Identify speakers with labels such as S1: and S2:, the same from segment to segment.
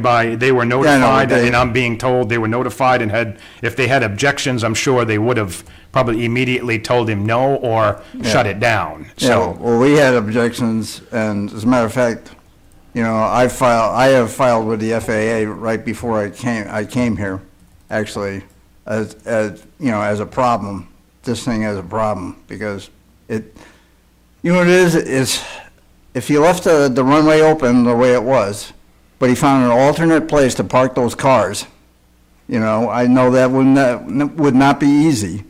S1: by, they were
S2: but
S1: notified,
S2: they-
S1: and I'm being told they were notified and had, if they had objections, I'm sure they would have probably immediately told him no or shut it down,
S2: Yeah,
S1: so.
S2: well, we had objections, and as a matter of fact, you know, I filed, I have filed with the FAA right before I came, I came here, actually, as, as, you know, as a problem, this thing as a problem, because it, you know what it is, is if you left the, the runway open the way it was, but he found an alternate place to park those cars, you know, I know that would not, would not be easy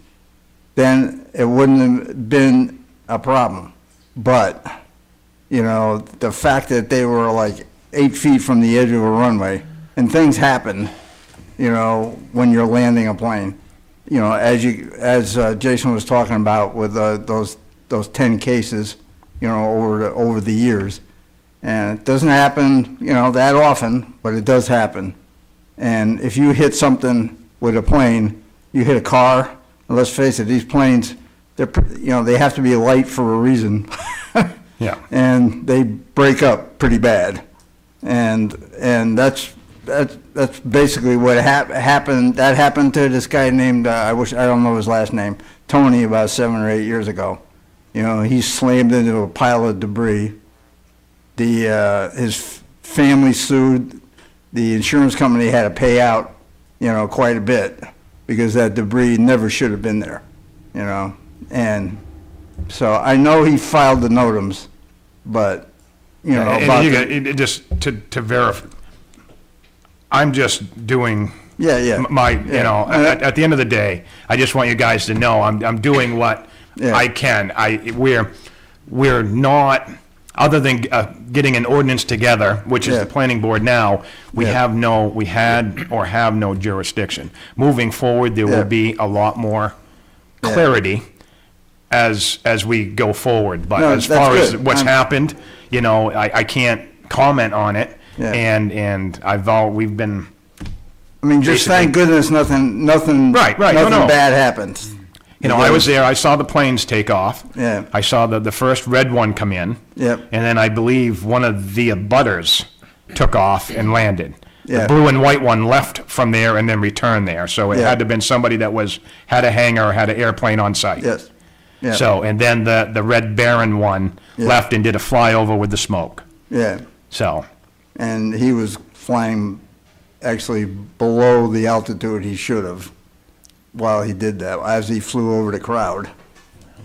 S2: then it wouldn't have been a problem. But, you know, the fact that they were like eight feet from the edge of a runway, and things happen, you know, when you're landing a plane. You know, as you, as uh, Jason was talking about with uh, those, those 10 cases, you know, over, the over the years. And it doesn't happen, you know, that often, but it does happen. And if you hit something with a plane, you hit a car, and let's face it, these planes, they're, pr- you know, they have to be light for a reason.
S1: Yeah.
S2: And they break up pretty bad. And, and that's, that's, that's basically what hap- happened, that happened to this guy named, uh, I wish, I don't know his last name, Tony about seven or eight years ago. You know, he slammed into a pile of debris the, uh, his f- family sued, the insurance company had to pay out, you know, quite a bit, because that debris never should have been there, you know? And so I know he filed the notams, but, you know,
S1: And
S2: about,
S1: you
S2: the-
S1: got- it- it just to, to verify, I'm just doing.
S2: Yeah, yeah.
S1: m- My, you
S2: Yeah. Uh,
S1: know, at, at the end of the day, I just want you guys to know, I'm, I'm doing what
S2: Yeah.
S1: I can. I, we're, we're not, other than, uh, getting an ordinance together, which is the
S2: Yeah.
S1: planning board now, we
S2: Yeah.
S1: have no, we had or have no jurisdiction. Moving forward, there
S2: Yeah.
S1: will be a lot more
S2: Yeah.
S1: clarity as, as we go forward, but
S2: No,
S1: as
S2: that's
S1: far as
S2: good.
S1: what's
S2: I'm-
S1: happening happened, you know, I, I can't comment on it.
S2: Yeah.
S1: And, and I've all, we've been,
S2: I mean, just thank goodness nothing, nothing.
S1: Right, right, no, no.
S2: Nothing bad happened.
S1: you know, I was there, I saw the planes take off.
S2: Yeah.
S1: I saw the, the first red one come in.
S2: Yep.
S1: And then I believe one of the abutters took off and landed. The
S2: Yeah.
S1: blue and white one left from there and then returned there. So it
S2: Yeah.
S1: had to have been somebody that was, had a hangar, had an airplane on site.
S2: Yes, yeah.
S1: So, and then the, the Red Baron one
S2: Yeah.
S1: left and did a flyover with the smoke.
S2: yeah.
S1: So,
S2: and he was flying actually below the altitude he should have while he did that, as he flew over the crowd,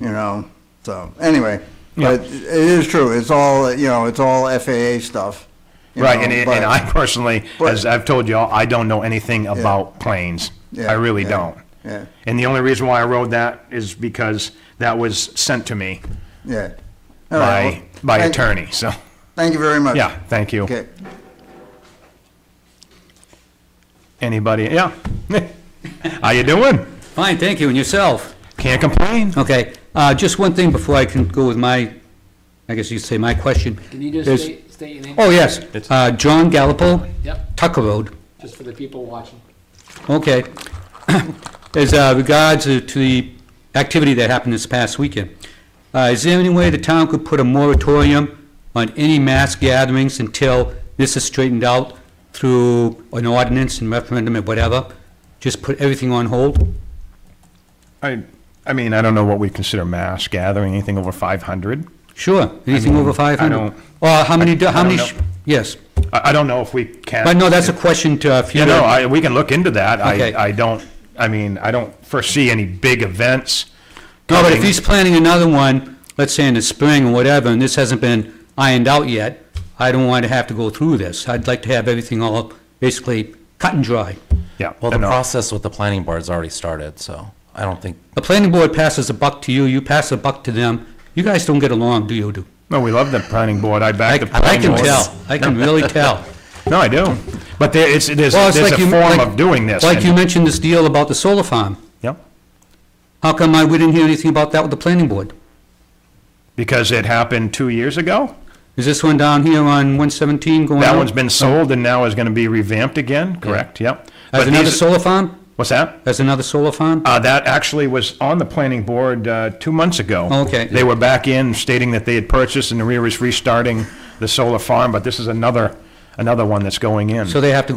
S2: you know, so, anyway. But it is true, it's all, you know, it's all FAA stuff. you
S1: Right,
S2: know,
S1: and, and
S2: but-
S1: I personally,
S2: but-
S1: as I've told y'all, I don't know anything about planes.
S2: Yeah,
S1: I really
S2: yeah,
S1: don't.
S2: yeah.
S1: And the only reason why I wrote that is because that was sent to me
S2: Yeah. All right,
S1: by,
S2: Oh, well,
S1: by
S2: thank-
S1: attorney, so,
S2: Thank you very much.
S1: yeah, thank you.
S2: Okay.
S1: Anybody, yeah. How you doing?
S3: Fine, thank you, and yourself?
S1: Can't complain.
S3: Okay, uh, just one thing before I can go with my, I guess you'd say my question.
S4: Can you just
S3: There's-
S4: state, state your name?
S3: Oh, yes, uh, John Gallipo,
S4: Yep,
S3: Tucker Road,
S4: just for the people watching.
S3: okay. As uh, regards to to the activity that happened this past weekend, uh, is there any way the town could put a moratorium on any mass gatherings until this is straightened out through an ordinance and referendum and whatever? Just put everything on hold?
S1: I, I mean, I don't know what we consider mass gathering, anything over five hundred.
S3: Sure, anything over 500?
S1: don't-
S3: Or how many, do-
S1: I
S3: how
S1: don't
S3: many,
S1: know.
S3: sh- yes.
S1: I, I don't know if we can.
S3: But no, that's a question to uh, a
S1: You know,
S3: future,
S1: I, we can look into that.
S3: Okay.
S1: I, I don't, I mean, I don't foresee any big events.
S3: no, but if
S1: coming.
S3: he's planning another one, let's say in the spring or whatever, and this hasn't been ironed out yet, I don't want to have to go through this. I'd like to have everything all basically cut and dry.
S1: Yeah. uh,
S5: Well, the
S1: no.
S5: process with the planning board's already started, so I don't think,
S3: The planning board passes a buck to you, you pass a buck to them. You guys don't get along, do you, do?
S1: No, we love the planning board. I
S3: I
S1: back the
S3: I
S1: planning
S3: can
S1: board.
S3: tell, I can really tell.
S1: No, I do. But there, it's, there's,
S3: Well, it's
S1: there's
S3: like
S1: a
S3: you-
S1: form
S3: like-
S1: of doing this.
S3: Like
S1: and-
S3: you mentioned this deal about the solar farm.
S1: Yep.
S3: How come I, we didn't hear anything about that with the planning board?
S1: Because it happened two years ago.
S3: Is this one down here on 117 going
S1: That
S3: out?
S1: one's been sold and now is going to be revamped again, correct? Yep.
S3: As
S1: But
S3: another
S1: these-
S3: solar farm?
S1: What's that?
S3: As another solar farm?
S1: Uh, that actually was on the planning board, uh, two months ago.
S3: Oh, okay.
S1: They were back in stating that they had purchased and the rear is restarting the solar farm, but this is another,
S6: another one that's going in.
S1: So they have to go